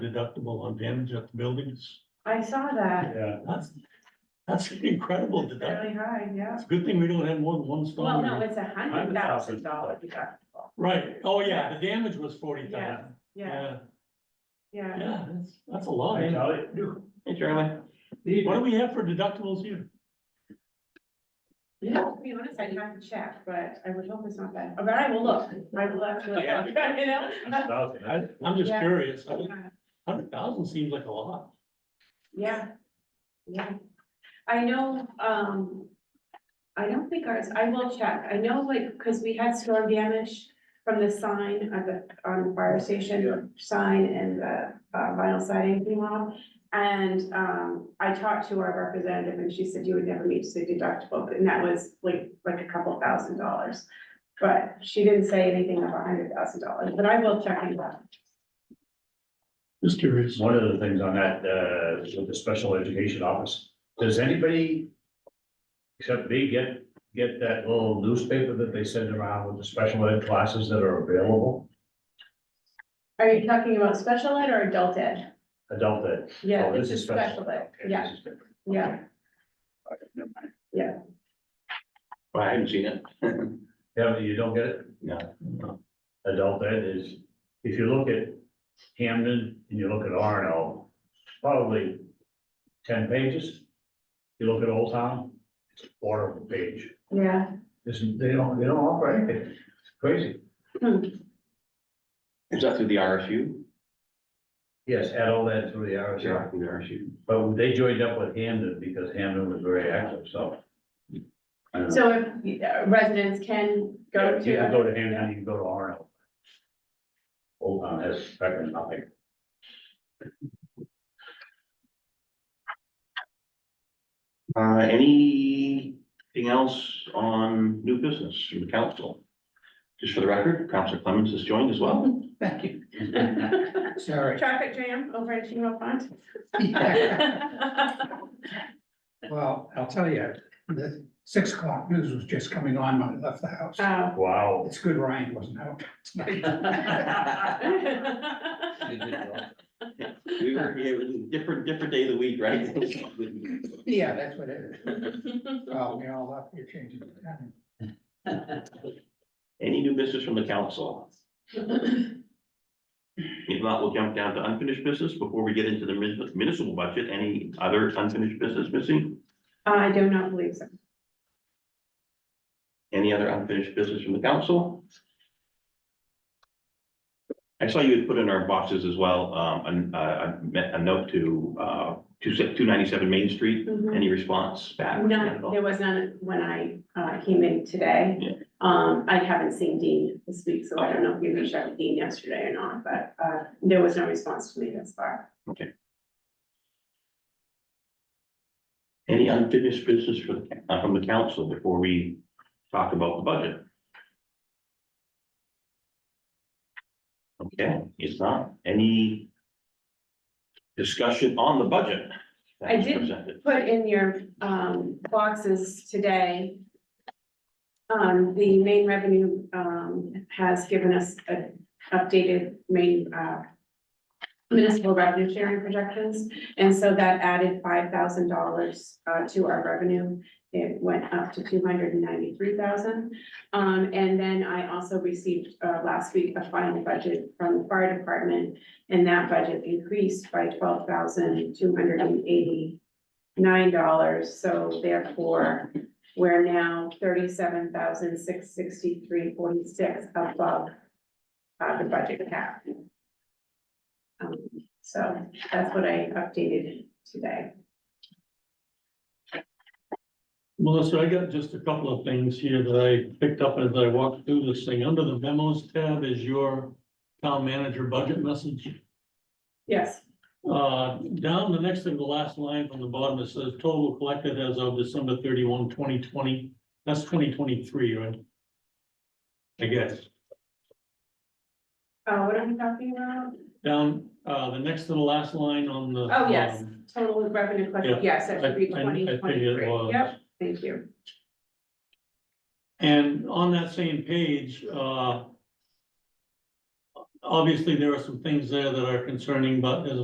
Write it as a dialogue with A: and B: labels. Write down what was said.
A: deductible on damage at the buildings.
B: I saw that,
C: Yeah,
A: That's, that's an incredible deductible.
B: really high, yeah.
A: It's a good thing we don't have more than one storm.
B: Well, no,
A: here.
B: it's a hundred thousand dollar deductible,
A: Right, oh yeah, the damage was forty thousand.
B: yeah, yeah.
A: Yeah, that's, that's a lot.
C: hey, Charlie.
D: Hey, Charlie.
A: What do we have for deductibles here?
B: To be honest, I'd have to check, but I would hope it's not that, but I will look, I will actually
C: Yeah.
B: look, you know?
A: I, I'm just
B: Yeah.
A: curious. Hundred thousand seems like a lot.
B: Yeah, yeah. I know, um, I don't think ours, I will check. I know like, because we had storm damage from the sign at the, on the fire station, sign and the uh, vinyl siding came off. And, um, I talked to our representative and she said you would never meet the deductible, and that was like, like a couple thousand dollars. But she didn't say anything of a hundred thousand dollars, but I will check into that.
A: Just curious.
C: One of the things on that, uh, with the special education office, does anybody except me get, get that little newspaper that they send around with the special ed classes that are available?
B: Are you talking about special ed or adult ed?
C: Adult ed.
B: Yeah,
C: Oh,
B: this is special ed,
C: Okay,
B: yeah.
C: this is different.
B: Yeah,
C: Okay, never mind.
D: I haven't seen it.
C: Yeah, you don't get it?
D: No.
C: Adult ed is, if you look at Hamden and you look at Arno, probably ten pages. You look at Old Town, it's a quarter of a page.
B: yeah.
C: This is, they don't, they don't offer anything. It's crazy.
D: Is that through the RSU?
C: Yes, add all that through the RSI.
D: Through the RSU.
C: But they joined up with Hamden because Hamden was very active, so. I don't know.
B: So if uh, residents can go
C: You can
B: to,
C: go to Hamden, you can go to Arno. Old Town has practically nothing.
D: Uh, anything else on new business from the council? Just for the record, Councilor Clemens has joined as well. Thank you.
E: Sorry.
B: traffic jam over at Chino Pond.
E: Well, I'll tell you, the six o'clock news was just coming on when I left the house.
B: Oh.
C: Wow.
E: It's good Ryan wasn't out tonight.
D: We were, it was a different, different day of the week, right?
E: Yeah, that's what it is. Well, we all left, you're changing the time.
D: Any new business from the council? If not, we'll jump down to unfinished business before we get into the mun- municipal budget. Any other unfinished business missing?
B: I do not believe so.
D: Any other unfinished business from the council? I saw you had put in our boxes as well, um, an- uh, a, me- a note to, uh, two, two ninety-seven Main Street.
B: Mhm.
D: Any response back?
B: No, there was none when I uh, came in today.
D: Yeah.
B: Um, I haven't seen Dean this week, so I don't know if you reached out to Dean yesterday or not, but uh, there was no response to me thus far.
D: Any unfinished business for, the- uh, from the council before we talk about the budget? Okay, it's not any discussion on the budget. that
B: I
D: was
B: did-
D: presented.
B: Put in your um, boxes today Um, the main revenue, um, has given us an updated main, uh, municipal revenue sharing projections, and so that added five thousand dollars, uh, to our revenue. It went up to two hundred and ninety-three thousand. Um, and then I also received, uh, last week, a final budget from the fire department, and that budget increased by twelve thousand, two hundred and eighty-nine dollars, so therefore, we're now thirty-seven thousand six sixty-three forty-six above uh, the budget cap. Um, so that's what I updated today.
A: Melissa, I got just a couple of things here that I picked up as I walked through this thing. Under the memos tab is your town manager budget message.
B: Yes,
A: Uh, down the next to the last line from the bottom, it says total collected as of December 31, 2020. That's twenty twenty-three, right? I guess.
B: uh, what am I talking about?
A: Down, uh, the next to the last line on the.
B: Oh, yes.
A: um,
B: Total revenue
A: Yeah,
B: collected, yes, that
A: I- I- I
B: should be
A: think
B: twenty
A: it
B: twenty-three.
A: was.
B: Yep, thank you.
A: And on that same page, uh. obviously, there are some things there that are concerning, but as